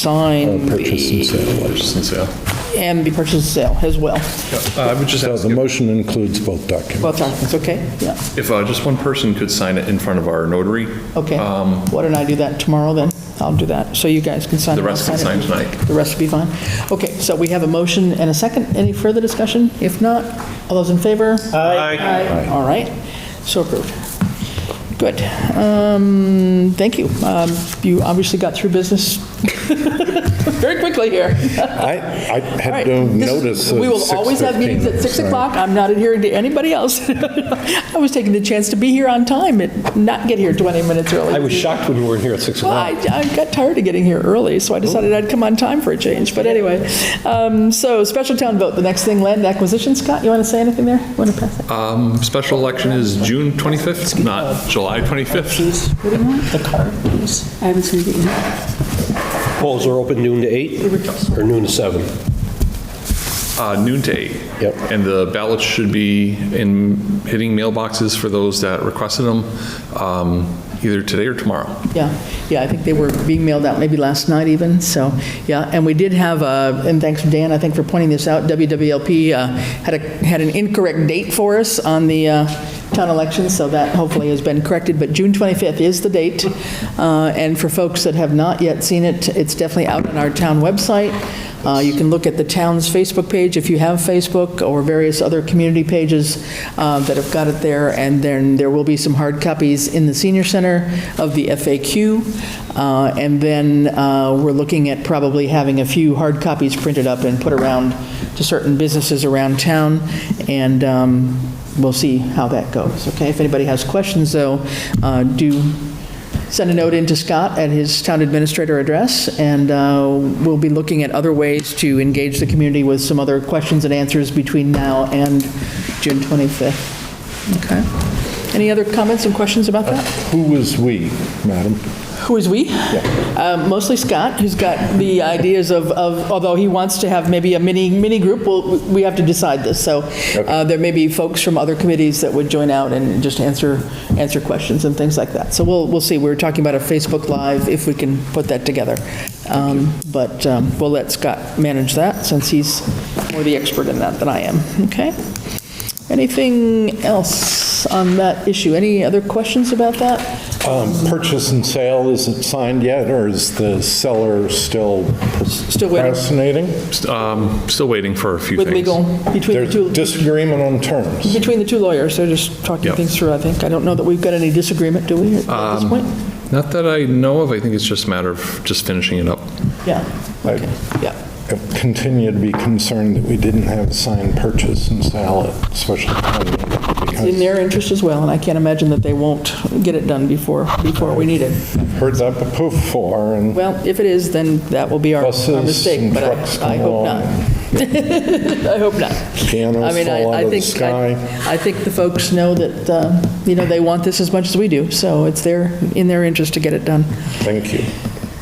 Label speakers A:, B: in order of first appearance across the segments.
A: sign
B: Oh, Purchase and
A: the,
B: sale.
C: Purchase and sale.
A: and the purchase and sale as well.
C: Uh, I would just
B: So
C: ask
B: the
C: if-
B: motion includes both documents.
A: Both documents, okay? Yeah,
C: if uh, just one person could sign it in front of our notary.
A: okay.
C: Um,
A: Why don't I do that tomorrow then? I'll do that, so you guys can sign.
C: The
A: it.
C: rest can
A: Sign it.
C: sign tonight.
A: The rest will be fine. Okay, so we have a motion and a second. Any further discussion? If not, all those in favor?
C: Aye.
A: Aye. All right, so approved. Good. Um, Thank you. Um, You obviously got through business very quickly here.
B: I, I had no
A: Right. This-
B: notice of
A: We will always have
B: 6:15,
A: meetings at 6
B: so-
A: o'clock. I'm not adhering to anybody else. I was taking the chance to be here on time and not get here 20 minutes early.
D: I was shocked when we weren't here at 6
A: Well,
D: o'clock.
A: I, I got tired of getting here early, so I decided I'd come on time for a change, but anyway. Um, So special town vote, the next thing, land acquisition. Scott, you want to say anything there? Want to pass that?
C: Um, Special election is June 25th, not July 25th.
A: The card, please.
E: I haven't seen it yet.
D: Polls are open noon to 8 or noon to 7.
C: Uh, Noon to eight.
B: Yep.
C: And the ballots should be in, hitting mailboxes for those that requested them, um, either today or tomorrow.
A: Yeah, yeah, I think they were being mailed out maybe last night even, so, yeah. And we did have, uh, and thanks, Dan, I think for pointing this out, WWLP uh, had a, had an incorrect date for us on the uh, town election, so that hopefully has been corrected, but June 25th is the date. Uh, And for folks that have not yet seen it, it's definitely out on our town website. Uh, You can look at the town's Facebook page if you have Facebook, or various other community pages uh, that have got it there, and then there will be some hard copies in the senior center of the FAQ, Uh, and then uh, we're looking at probably having a few hard copies printed up and put around to certain businesses around town, and um, we'll see how that goes, okay? If anybody has questions, though, uh, do send a note in to Scott at his town administrator address, and uh, we'll be looking at other ways to engage the community with some other questions and answers between now and June 25th. Okay. Any other comments and questions about that?
B: Who was "we," madam?
A: Who is "we"? Uh, Mostly Scott, who's got the ideas of, of- although he wants to have maybe a mini, mini group, we'll- we have to decide this. So uh, there may be folks from other committees that would join out and just answer, answer questions and things like that. So we'll, we'll see. We were talking about a Facebook Live, if we can put that together. Um, But um, we'll let Scott manage that, since he's more the expert in that than I am. Okay? Anything else on that issue? Any other questions about that?
B: Um, Purchase and sale, is it signed yet, or is the seller still
A: Still waiting.
B: procrastinating?
C: Um, Still waiting for a few things.
A: With legal, between the
B: There's
A: two,
B: disagreement on terms.
A: between the two lawyers, they're just talking
C: Yep.
A: things through, I think. I don't know that we've got any disagreement, do we, at
B: Um,
A: this point?
C: Not that I know of, I think it's just a matter of just finishing it up.
A: Yeah,
B: I
A: yeah.
B: continue to be concerned that we didn't have a signed purchase and sale at special town meeting.
A: It's in
B: because
A: their interest as well, and I can't imagine that they won't get it done before, before we need it.
B: Heard that before, and
A: Well, if it is, then that will be our our
B: Buses
A: mistake,
B: and
A: but
B: trucks
A: I- I
B: come
A: hope not.
B: along.
A: I hope not.
B: Pianos
A: I mean, I-
B: fall out
A: I
B: of the
A: think- I-
B: sky.
A: I think the folks know that, uh, you know, they want this as much as we do, so it's their, in their interest to get it done.
B: thank you.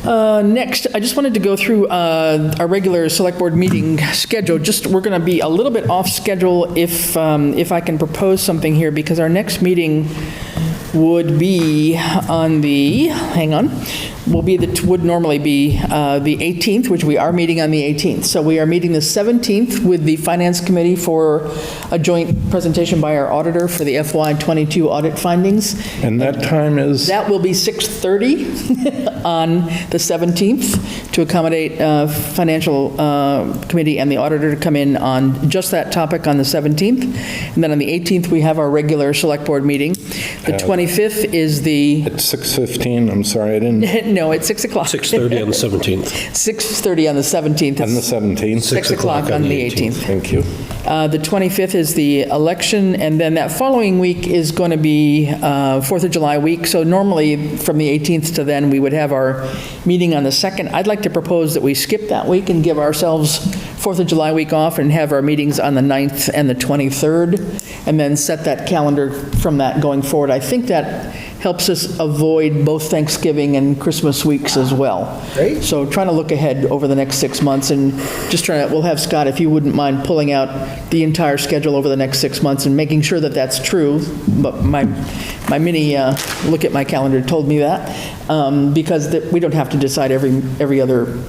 A: Uh, Next, I just wanted to go through uh, our regular Select Board meeting schedule. Just, we're going to be a little bit off schedule if, um, if I can propose something here, because our next meeting would be on the, hang on, will be, the would normally be uh, the 18th, which we are meeting on the 18th. So we are meeting the 17th with the Finance Committee for a joint presentation by our auditor for the FY '22 audit findings.
B: And that time is,
A: That will be 6:30 on the 17th to accommodate uh, Financial uh, Committee and the auditor to come in on just that topic on the 17th. And then on the 18th, we have our regular Select Board meeting. The 25th is the,
B: it's 6:15, I'm sorry, I didn't,
A: no, it's 6 o'clock.
D: 6:30 on the 17th.
A: 6:30 on the 17th.
B: and the
A: It's
B: 17th.
A: 6 o'clock on the 18th.
B: Thank you.
A: Uh, The 25th is the election, and then that following week is going to be uh, 4th of July week. So normally, from the 18th to then, we would have our meeting on the 2nd. I'd like to propose that we skip that week and give ourselves 4th of July week off and have our meetings on the 9th and the 23rd, and then set that calendar from that going forward. I think that helps us avoid both Thanksgiving and Christmas weeks as well. Great. So trying to look ahead over the next six months and just trying to, we'll have Scott, if you wouldn't mind pulling out the entire schedule over the next six months and making sure that that's true. But my, my mini, uh, look at my calendar told me that, um, because that- we don't have to decide every, every other